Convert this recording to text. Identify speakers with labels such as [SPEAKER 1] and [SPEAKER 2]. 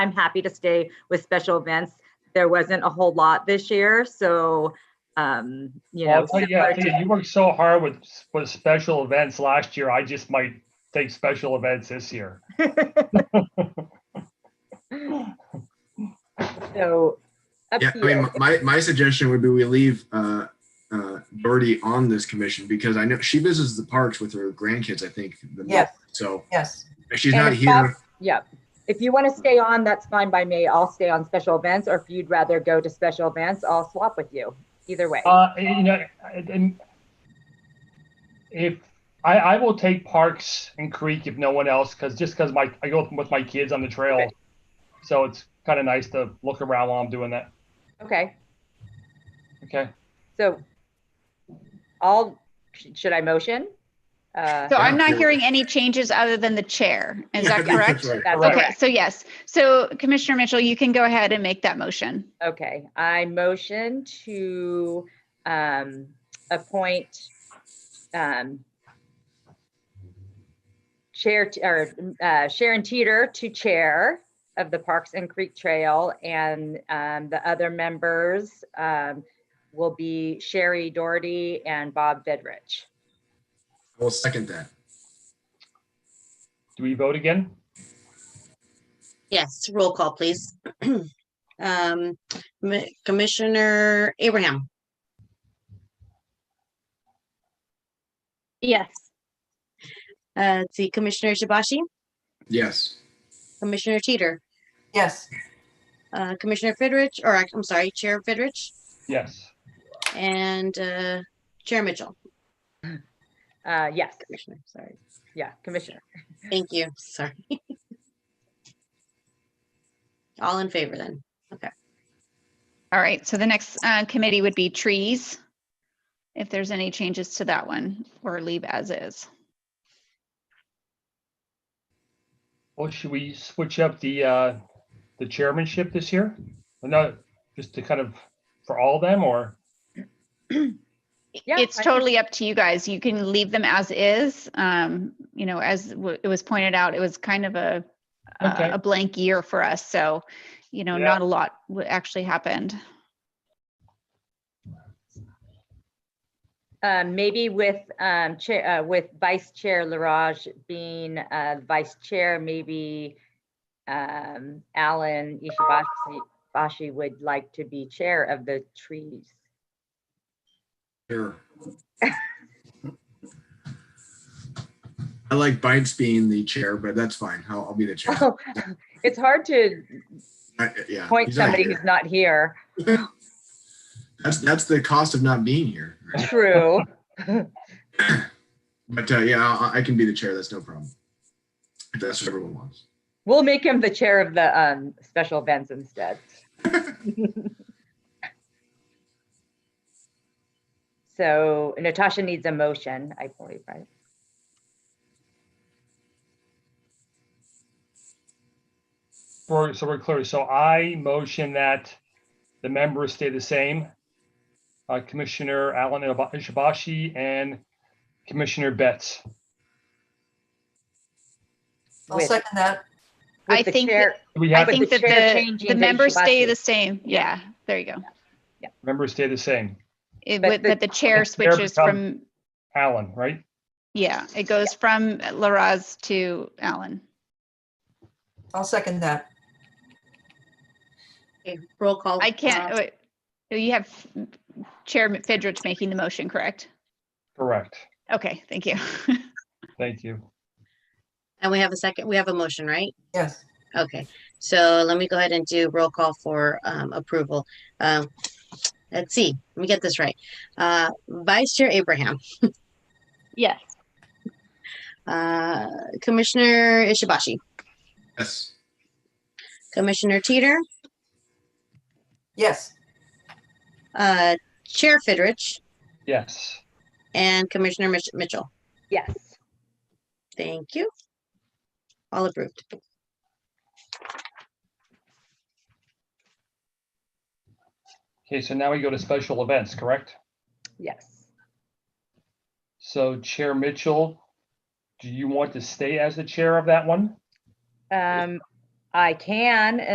[SPEAKER 1] I'm happy to stay with special events. There wasn't a whole lot this year, so, um, you know.
[SPEAKER 2] Well, Oh, yeah,
[SPEAKER 1] similar to-
[SPEAKER 2] Tina, you worked so hard with, with special events last year. I just might take special events this year.
[SPEAKER 3] So up
[SPEAKER 4] Yeah, I mean,
[SPEAKER 3] here,
[SPEAKER 4] my, my suggestion would be we leave uh, uh, Doherty on this commission because I know she visits the parks with her grandkids, I think. the most.
[SPEAKER 5] Yes.
[SPEAKER 4] So
[SPEAKER 5] Yes,
[SPEAKER 4] if she's
[SPEAKER 1] And
[SPEAKER 4] not
[SPEAKER 1] if
[SPEAKER 4] here,
[SPEAKER 1] that's- Yeah, if you want to stay on, that's fine by me. I'll stay on special events, or if you'd rather go to special events, I'll swap with you. Either way.
[SPEAKER 2] Uh, you know, and- and if I, I will take Parks and Creek if no one else, because just because my I go with my kids on the trail, so it's kind of nice to look around while I'm doing that.
[SPEAKER 1] Okay,
[SPEAKER 2] Okay.
[SPEAKER 1] so I'll, should I motion? Uh,
[SPEAKER 6] So I'm not
[SPEAKER 4] Yeah.
[SPEAKER 6] hearing any changes other than the chair. Is
[SPEAKER 4] Yeah, I
[SPEAKER 6] that
[SPEAKER 4] think
[SPEAKER 6] correct?
[SPEAKER 4] that's right.
[SPEAKER 1] that's
[SPEAKER 2] Correct.
[SPEAKER 1] okay.
[SPEAKER 6] Okay, so yes. So Commissioner Mitchell, you can go ahead and make that motion.
[SPEAKER 1] Okay, I motion to um appoint um Chair, T- or uh, Sharon Teeter to Chair of the Parks and Creek Trail, and um the other members um will be Sherry Doherty and Bob Bedrich.
[SPEAKER 4] I will second that.
[SPEAKER 2] Do we vote again?
[SPEAKER 7] Yes, roll call, please. Um, M- Commissioner Abraham,
[SPEAKER 6] Yes.
[SPEAKER 7] uh, let's see, Commissioner Shibashi,
[SPEAKER 4] Yes.
[SPEAKER 7] Commissioner Teeter,
[SPEAKER 5] yes,
[SPEAKER 7] uh, Commissioner Fidrich, or I- I'm sorry, Chair Fidrich,
[SPEAKER 2] Yes.
[SPEAKER 7] and, uh, Chair Mitchell,
[SPEAKER 1] Uh, yes,
[SPEAKER 7] Commissioner, sorry.
[SPEAKER 1] yeah, Commissioner.
[SPEAKER 7] Thank you, sorry. All in favor then?
[SPEAKER 6] All right, so the next uh, committee would be trees. If there's any changes to that one or leave as is.
[SPEAKER 2] Well, should we switch up the uh, the chairmanship this year? Or no, just to kind of for all of them, or
[SPEAKER 1] Yeah,
[SPEAKER 6] It's
[SPEAKER 1] I-
[SPEAKER 6] totally up to you guys. You can leave them as is. Um, You know, as w- it was pointed out, it was kind of a
[SPEAKER 2] Okay.
[SPEAKER 6] a blank year for us. So, you know,
[SPEAKER 2] Yeah.
[SPEAKER 6] not a lot w- actually happened.
[SPEAKER 1] Um, maybe with, um, chair, uh, with Vice Chair Laraj being, uh, Vice Chair, maybe, um, Alan Ishibashi, Bashi would like to be Chair of the Trees.
[SPEAKER 4] Sure. I like Bites being the chair, but that's fine. I'll, I'll be the chair.
[SPEAKER 1] It's hard to
[SPEAKER 4] I- yeah.
[SPEAKER 1] point
[SPEAKER 4] he's not
[SPEAKER 1] somebody
[SPEAKER 4] here.
[SPEAKER 1] who's not here.
[SPEAKER 4] That's, that's the cost of not being here. right?
[SPEAKER 1] True.
[SPEAKER 4] But uh, yeah, I, I can be the chair. That's no problem. If that's what everyone wants.
[SPEAKER 1] We'll make him the Chair of the, um, Special Events instead. So Natasha needs a motion, I believe, right?
[SPEAKER 2] for so we're clear. So I motion that the members stay the same. Uh, Commissioner Alan Ishibashi and Commissioner Betts.
[SPEAKER 5] I'll
[SPEAKER 1] With-
[SPEAKER 5] second that.
[SPEAKER 1] with
[SPEAKER 6] I
[SPEAKER 1] the
[SPEAKER 6] think
[SPEAKER 1] chair-
[SPEAKER 6] that-
[SPEAKER 2] Do we
[SPEAKER 6] I
[SPEAKER 2] have
[SPEAKER 1] but
[SPEAKER 6] think
[SPEAKER 1] the
[SPEAKER 6] that
[SPEAKER 1] chair
[SPEAKER 6] the,
[SPEAKER 1] changing
[SPEAKER 6] the
[SPEAKER 1] to
[SPEAKER 6] members stay
[SPEAKER 1] Ishibashi.
[SPEAKER 6] the same. Yeah, there you go.
[SPEAKER 2] members stay the same?
[SPEAKER 6] It
[SPEAKER 1] But
[SPEAKER 6] would,
[SPEAKER 1] the-
[SPEAKER 6] that the chair
[SPEAKER 2] chair
[SPEAKER 6] switches
[SPEAKER 2] becomes-
[SPEAKER 6] from,
[SPEAKER 2] Alan, right?
[SPEAKER 6] yeah, it goes from Laraz to Alan.
[SPEAKER 5] I'll second that.
[SPEAKER 7] Okay, roll call.
[SPEAKER 6] I
[SPEAKER 7] uh,
[SPEAKER 6] can't, wait. you have Chair Fidrich making the motion, correct?
[SPEAKER 2] Correct.
[SPEAKER 6] Okay, thank you.
[SPEAKER 2] Thank you.
[SPEAKER 7] And we have a second, we have a motion, right?
[SPEAKER 5] Yes,
[SPEAKER 7] Okay, so let me go ahead and do roll call for um, approval. Um, Let's see, let me get this right. Uh, Vice Chair Abraham,
[SPEAKER 6] Yes.
[SPEAKER 7] uh, Commissioner Ishibashi,
[SPEAKER 4] Yes.
[SPEAKER 7] Commissioner Teeter,
[SPEAKER 5] yes,
[SPEAKER 7] uh, Chair Fidrich,
[SPEAKER 2] Yes.
[SPEAKER 7] and Commissioner Mitch- Mitchell.
[SPEAKER 1] Yes.
[SPEAKER 7] Thank you. All approved.
[SPEAKER 2] Okay, so now we go to special events, correct?
[SPEAKER 1] Yes.
[SPEAKER 2] So Chair Mitchell, do you want to stay as the chair of that one?
[SPEAKER 1] Um, I can,